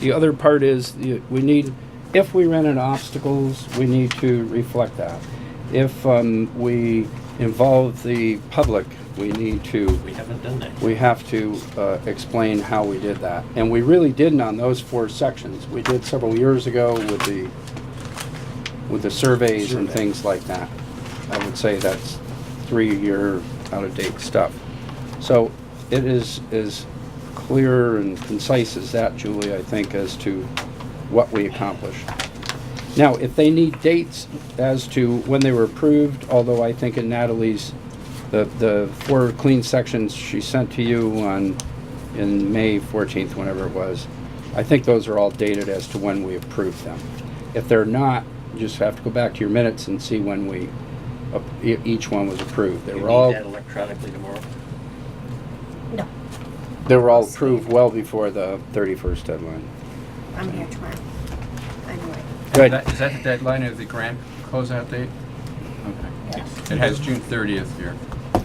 The other part is, you- we need, if we run into obstacles, we need to reflect that. If um, we involve the public, we need to, We haven't done that. we have to uh, explain how we did that. And we really didn't on those four sections. We did several years ago with the, with the surveys and Survey. things like that. I would say that's three-year out-of-date stuff. So it is as clear and concise as that, Julie, I think, as to what we accomplished. Now, if they need dates as to when they were approved, although I think in Natalie's, the, the four clean sections she sent to you on, in May 14th, whenever it was, I think those are all dated as to when we approved them. If they're not, you just have to go back to your minutes and see when we, ap- e- each one was approved. They You were need all, that electronically tomorrow. No, they were all approved well before the 31st deadline. I'm here tomorrow. I'm away. Good. That- Is that the deadline of the grant closeout date? Okay. It has June 30th here.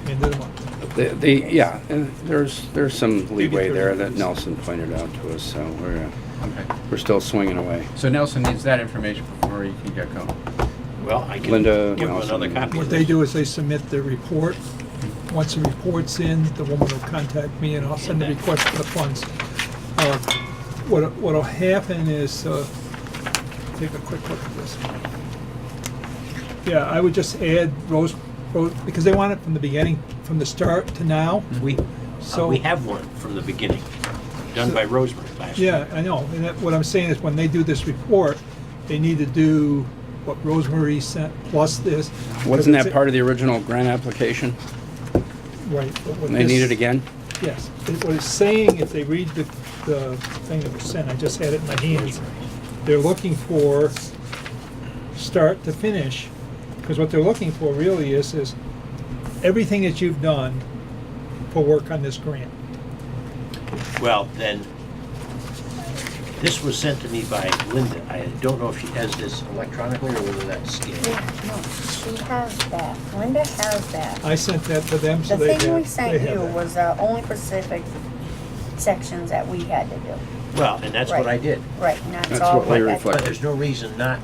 End of the month. The, the, yeah, and there's, there's some leeway thirty there that days. Nelson pointed out to us, so we're, uh, Okay. we're still swinging away. So Nelson needs that information before he can get going. Well, I can Linda give him another Nelson. copy. What they do is they submit the report. Once the report's in, the woman will contact me and I'll send the request for the funds. Uh, What, what'll happen is, uh, take a quick look at this. Yeah, I would just add Rose, Rose, because they want it from the beginning, from the start to now. We, uh, So- we have one from the beginning, done by Rosemary last Yeah, year. I know, and that, what I'm saying is when they do this report, they need to do what Rosemary sent plus this. Wasn't that part of the original grant application? Right. but what And they this- need it again? Yes, It- what it's saying, if they read the, the thing that was sent, I just had it in my hands, they're looking for start to finish, because what they're looking for really is, is everything that you've done for work on this grant. Well, then, this was sent to me by Linda. I don't know if she has this electronically or whether that's scanned. Yeah, no, she has that. Linda has that. I sent that to them, so The they have, thing we they sent have you that. was uh, only specific sections that we had to do. Well, and that's what I Right. did. Right, and that's That's all. what we that- reflect. But there's no reason not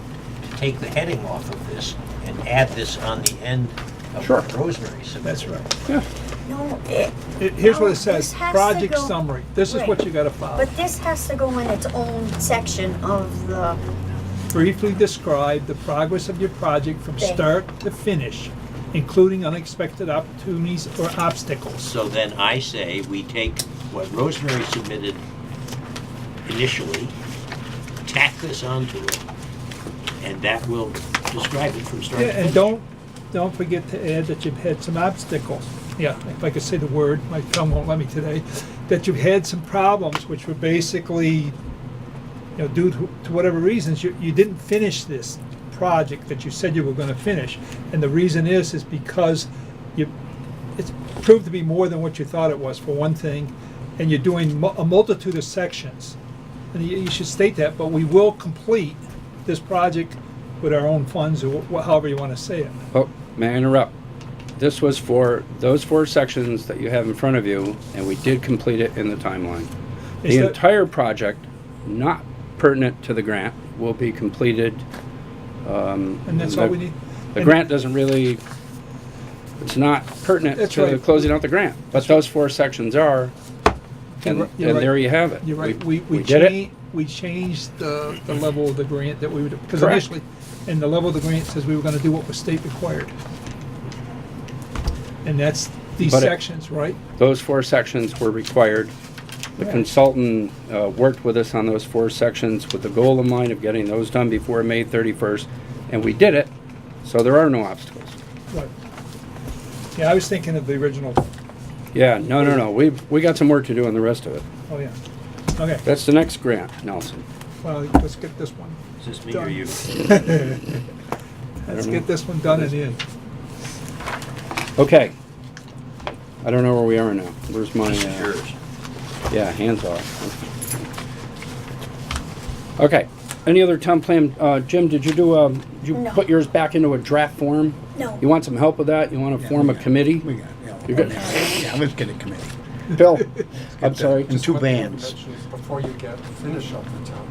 to take the heading off of this and add this on the end of Sure. what Rosemary submitted. That's right. No, it, It- Here's what No, it says, this has to project go- summary, this is what Right. you gotta follow. but this has to go in its own section of the, Briefly describe the progress of your project from Thank- start to finish, including unexpected opportunities or obstacles. So then I say we take what Rosemary submitted initially, tack this onto it, and that will describe it from start Yeah, to and finish. don't, don't forget to add that you've had some obstacles. Yeah, if I could say the word, my tongue won't let me today, that you've had some problems which were basically, you know, due to to whatever reasons, you, you didn't finish this project that you said you were gonna finish. And the reason is, is because you, it's proved to be more than what you thought it was, for one thing, and you're doing mu- a multitude of sections. And you, you should state that, but we will complete this project with our own funds, or wh- however you wanna say it. Oh, may I interrupt? This was for those four sections that you have in front of you, and we did complete it in the timeline. Is The that- entire project, not pertinent to the grant, will be completed. um, And that's all we need? The And- grant doesn't really, it's not pertinent That's to right. closing out the grant, but those four sections are, and, You're and right- you're right. there you have it. You're right, we, we did it. changed, we changed the, the level of the grant that we would, because Correct. initially, and the level of the grant says we were gonna do what was state required. And that's these But it- sections, right? Those four sections were required. The Right. consultant uh, worked with us on those four sections with the goal in mind of getting those done before May 31st, and we did it, so there are no obstacles. Right. Yeah, I was thinking of the original, Yeah, no, no, no, we've, we got some work to do on the rest of it. oh, yeah, okay, That's the next grant, Nelson. well, let's get this one. Is this me or you? Let's get this one done and in. Okay. I don't know where we are now. Where's my, This is uh, yours. yeah, hands off. Okay, any other town plan, uh, Jim, did you do, um, did you No. put yours back into a draft form? no. You want some help with that? You want to form a committee? We got, it, yeah. You got- Yeah, let's get a committee. Bill, I'm sorry. In two bands. before you get, finish up the town